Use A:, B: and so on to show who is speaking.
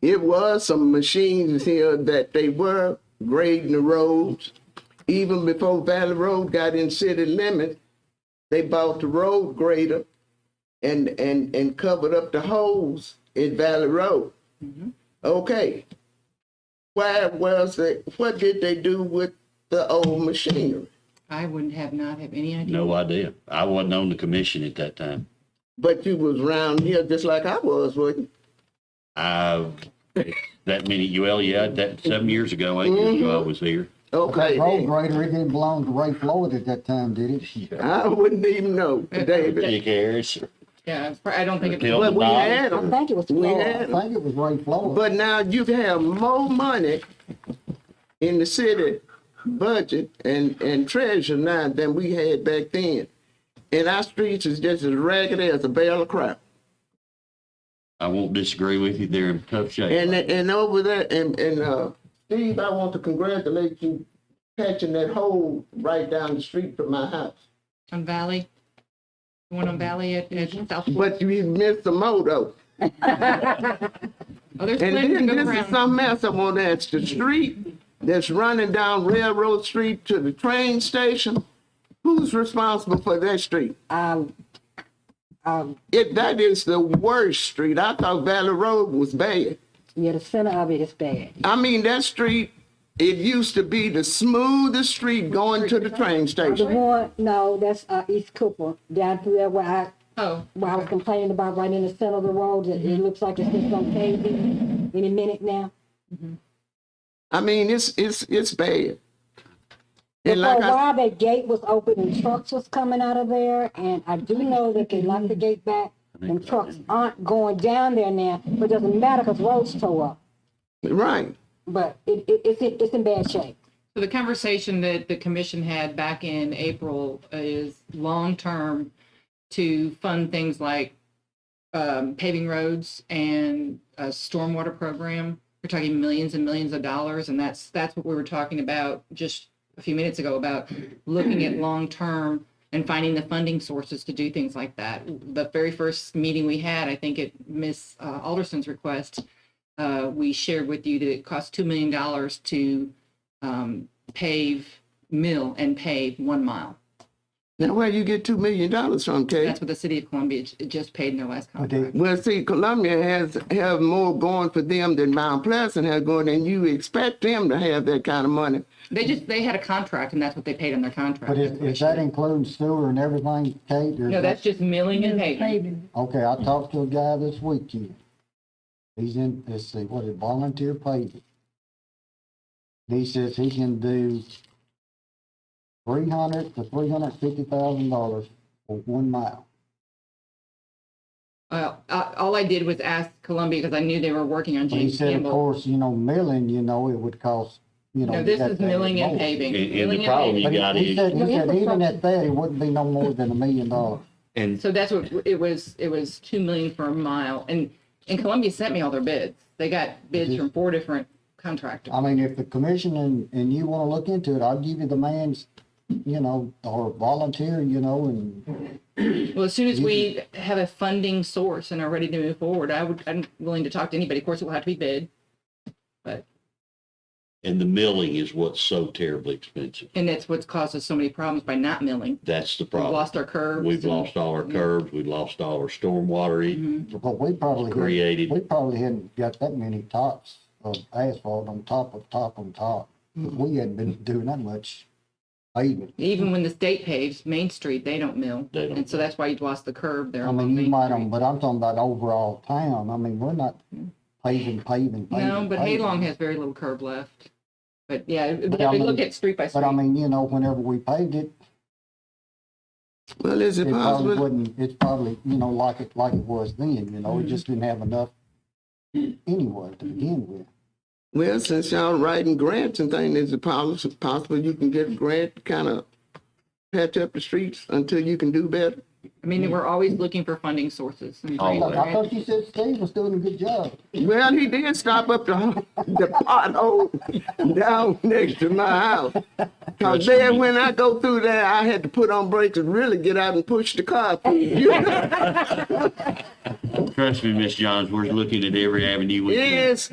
A: It was some machines here that they were grading the roads. Even before Valley Road got in city limits, they bought the road grader and and and covered up the holes in Valley Road. Okay. Why was it? What did they do with the old machinery?
B: I wouldn't have not have any idea.
C: No idea. I wasn't on the commission at that time.
A: But you was around here just like I was, wasn't
C: I, that many, well, yeah, that, seven years ago, eight years ago,
B: Mm-hmm.
C: I was here.
A: you? Okay.
D: Road
A: then.
D: grader, it didn't belong to Ray Floyd at that time, did it?
A: I wouldn't even know, David.
C: Dick Harris,
B: Yeah, it's prob- I don't think it's,
C: Killed
A: But
C: the
A: we
C: dog.
A: had
E: I
A: them.
E: think it was
A: We
E: Floyd.
D: Oh, I
A: had 'em.
D: think it was Ray Floyd.
A: But now you have more money in the city budget and, and treasure now than we had back then. And our streets is just as raggedy as a barrel of crap.
C: I won't disagree with you. They're in tough shape.
A: And and over there, and and uh, Steve, I want to congratulate you patching that hole right down the street from my house.
B: on Valley. The one on Valley at, at
A: Mm-hmm.
B: South.
A: But you missed the moto.
B: Oh, there's
A: And
B: plenty to
A: then
B: go
A: this is
B: around.
A: something else I want to ask. The street that's running down Railroad Street to the train station, who's responsible for that street?
E: Um, um,
A: It, that is the worst street. I thought Valley Road was bad.
E: yeah, the center of it is bad.
A: I mean, that street, it used to be the smoothest street going to the train
E: The
A: station.
E: one, no, that's, uh, East Cooper, down through there where I,
B: Oh,
E: where I was complaining about right in the center of the road, it,
A: Mm-hmm.
E: it looks like it's just gonna cave in any minute now.
A: I mean, it's, it's, it's bad.
E: But
A: And
E: for a
A: like I,
E: while, that gate was open and trucks was coming out of there, and I do know that they locked the gate back, and trucks aren't going down there now, but it doesn't matter, cause roads tore up.
A: right,
E: But it, it, it's, in- it's in bad shape.
B: so the conversation that the commission had back in April is long-term to fund things like um, paving roads and a stormwater program. We're talking millions and millions of dollars, and that's, that's what we were talking about just a few minutes ago, about looking at long-term and finding the funding sources to do things like that. The very first meeting we had, I think at Ms. uh, Alderson's request, uh, we shared with you that it cost $2 million to um, pave, mill and pave one mile.
A: now where you get two million dollars from, Kate?
B: That's what the city of Columbia j- just paid in their last
D: they-
B: contract.
A: Well, see, Columbia has have more going for them than Mount Pleasant has going, and you expect them to have that kind of money.
B: They just, they had a contract and that's what they paid on their contract.
D: But is, is that including sewer and everything, Kate? or is
B: No,
D: that-
B: that's just milling and paving.
D: Okay, I talked to a guy this weekend. He's in, let's see, what is it, volunteer paving? He says he can do three hundred to three hundred fifty thousand dollars for one mile.
B: Uh, uh, all I did was ask Columbia because I knew they were working on
D: But he
B: James
D: said, of
B: Campbell.
D: course, you know, milling, you know, it would cost, you know.
B: No, this
D: that
B: is
D: bad
B: milling and
D: more.
B: paving.
C: And- and the
B: Milling and
C: problem
B: paving.
D: But he-
C: got
D: he
C: it.
D: said, he
E: Well,
D: said even
E: infrastructure-
D: at that, it wouldn't be no more than a million dollars.
F: And
B: So that's what, it was, it was two million for a mile. And, and Columbia sent me all their bids. They got bids from four different contractors.
D: I mean, if the commission and, and you wanna look into it, I'll give you the man's, you know, or volunteer, you know, and
B: Well, as soon as we have a funding source and are ready to move forward, I would, I'm willing to talk to anybody. Of course, it will have to be bid. But,
C: and the milling is what's so terribly expensive.
B: and that's what's caused us so many problems by not milling.
C: That's the
B: We've
C: problem.
B: lost our curves.
C: We've
B: and- Mm-hmm.
C: lost all our curbs. We've lost all our stormwater.
D: Well, we probably. hadn't-
C: Created.
D: We probably hadn't got that many tops of asphalt on top of top on top.
B: Mm-hmm.
D: We hadn't been doing that much paving.
B: Even when the state paves Main Street, they don't mill.
C: They don't.
B: And so that's why you lost the curb there.
D: I
B: on
D: mean, you
B: Main
D: might,
B: Street.
D: on, but I'm talking about overall town. I mean, we're not paving, paving, paving.
B: Mm-hmm. No, but
D: paving.
B: Haylong has very little curb left. But yeah, if
D: But
B: if
D: I
B: we
D: mean-
B: look at street by
D: But I
B: street,
D: mean, you know, whenever we paved it,
A: Well, is
D: it
A: it
D: probably
A: possible?
D: wouldn't, it's probably, you know, like it, like it was then, you know, it just didn't have enough anyway to begin with.
A: Well, since y'all writing grants and things, is it possible, possible you can get a grant, to kind of patch up the streets until you can do better?
B: I mean, we're always looking for funding sources. and grants,
C: Always.
D: I
B: grants.
D: thought you said Steve was doing a good job.
A: Well, he did stop up the, the pothole down next to my house. Cause then when I go through there, I had to put on brakes and really get out and push the car.
C: Trust me, Miss Johns, we're looking at every avenue we can.
A: Yes,